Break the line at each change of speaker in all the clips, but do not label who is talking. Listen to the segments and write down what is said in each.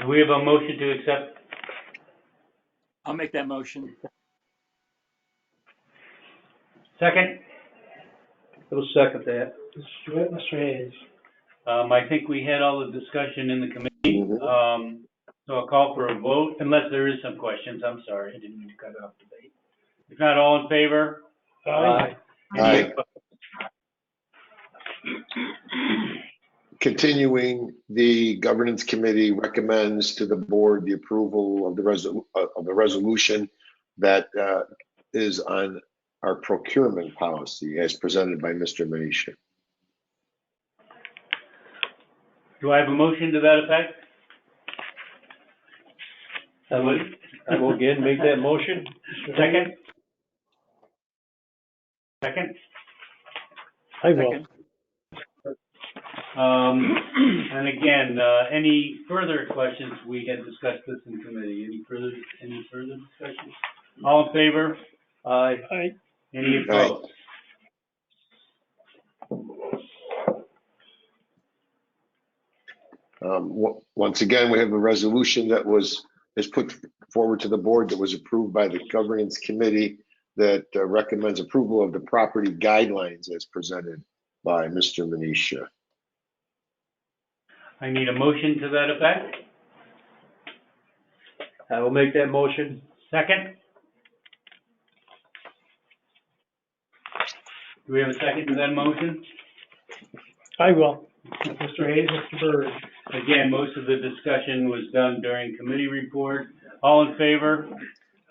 Do we have a motion to accept?
I'll make that motion.
Second,
I'll second that.
Mr. Jewett, Mr. Hayes.
um, I think we had all the discussion in the committee.
Mm-hmm.
Um, so I'll call for a vote, unless there is some questions, I'm sorry, I didn't mean to cut off debate. If not, all in favor?
Aye.
Any
Aye. Continuing, the governance committee recommends to the board the approval of the resol, uh, of the resolution that uh, is on our procurement policy as presented by Mr. Manisha.
Do I have a motion to that effect?
I will, I will again make that motion.
Second? Second,
I will.
Second.
um, and again, uh, any further questions? We had discussed this in committee. Any further, any further discussions? All in favor?
Aye.
Aye.
Any
Aye.
opposed?
Um, w- Once again, we have a resolution that was, is put forward to the board that was approved by the governance committee that uh, recommends approval of the property guidelines as presented by Mr. Manisha.
I need a motion to that effect.
I will make that motion.
Second? Do we have a second to that motion?
I will. Mr. Hayes, Mr. Byrd.
Again, most of the discussion was done during committee report. All in favor?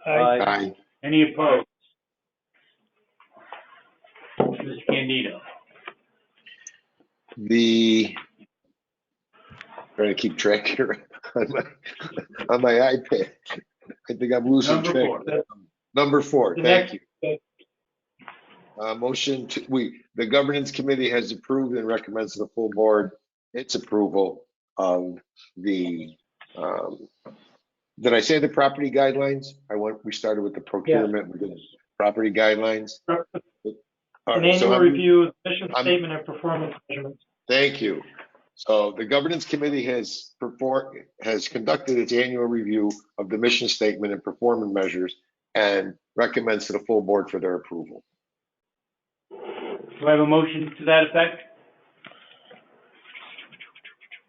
Aye.
Aye.
Any opposed? Mr. Candido,
The, trying to keep track here on my, on my iPad. I think I'm losing
Number
track.
four.
Number four,
The
thank
next-
you. Uh, motion to, we, the governance committee has approved and recommends to the full board its approval of the, um, did I say the property guidelines? I went, we started with the procurement, we did property guidelines.
An
All
An
right, so
annual
I'm-
review of mission
I'm-
statement and performance measurements.
Thank you. So the governance committee has performed, has conducted its annual review of the mission statement and performance measures and recommends to the full board for their approval.
do I have a motion to that effect?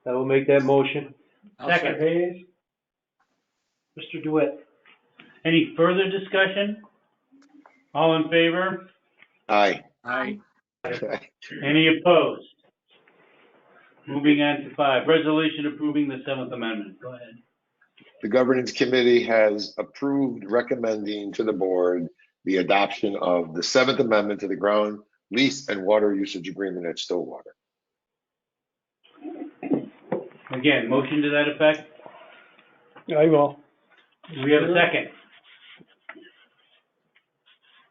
I will make that motion.
I'll
Mr. Hayes. Mr. Dewitt.
Any further discussion? All in favor?
Aye.
Aye.
Any opposed? Moving on to five, resolution approving the Seventh Amendment. Go ahead.
The governance committee has approved recommending to the board the adoption of the Seventh Amendment to the Ground Lease and Water Usage Agreement at Stillwater.
Again, motion to that effect?
I will.
Do we have a second?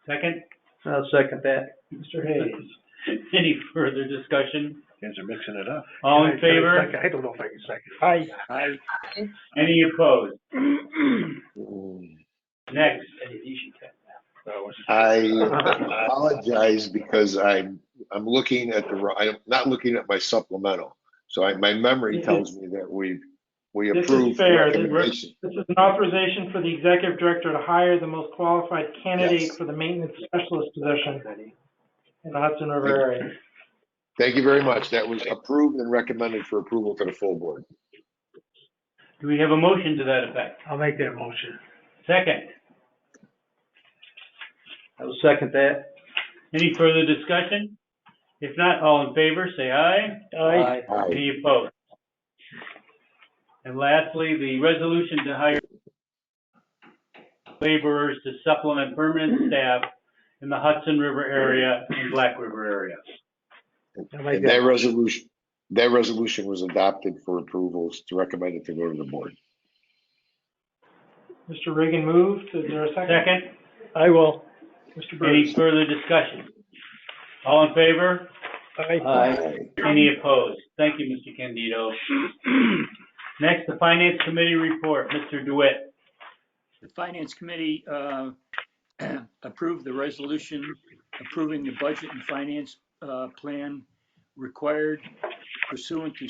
Second?
I'll second that.
Mr. Hayes.
Any further discussion?
Guys are mixing it up.
All in favor?
I don't know if I can second.
Aye.
Aye.
Any opposed? Next.
I apologize because I'm, I'm looking at the, wrong- I'm not looking at my supplemental. So I, my memory tells me that we, we
This is
approved the
fair. This-
recommendation.
This is an authorization for the executive director to hire the most qualified candidate
Yes.
for the maintenance specialist position in the Hudson River area.
Thank you very much. That was approved and recommended for approval to the full board.
Do we have a motion to that effect?
I'll make that motion.
Second.
I will second that.
Any further discussion? If not, all in favor, say aye.
Aye.
Aye.
Any opposed? And lastly, the resolution to hire laborers to supplement permanent staff in the Hudson River area and Black River area.
And that resolution, that resolution was adopted for approvals to recommend it to go to the board.
Mr. Reagan moved. Is there a second?
Second?
I will. Mr.
Any
Burns.
further discussion? All in favor?
Aye.
Any opposed? Thank you, Mr. Candido. Next, the Finance Committee report, Mr. DeWitt.
The Finance Committee uh, approved the resolution approving the budget and finance uh, plan required pursuant to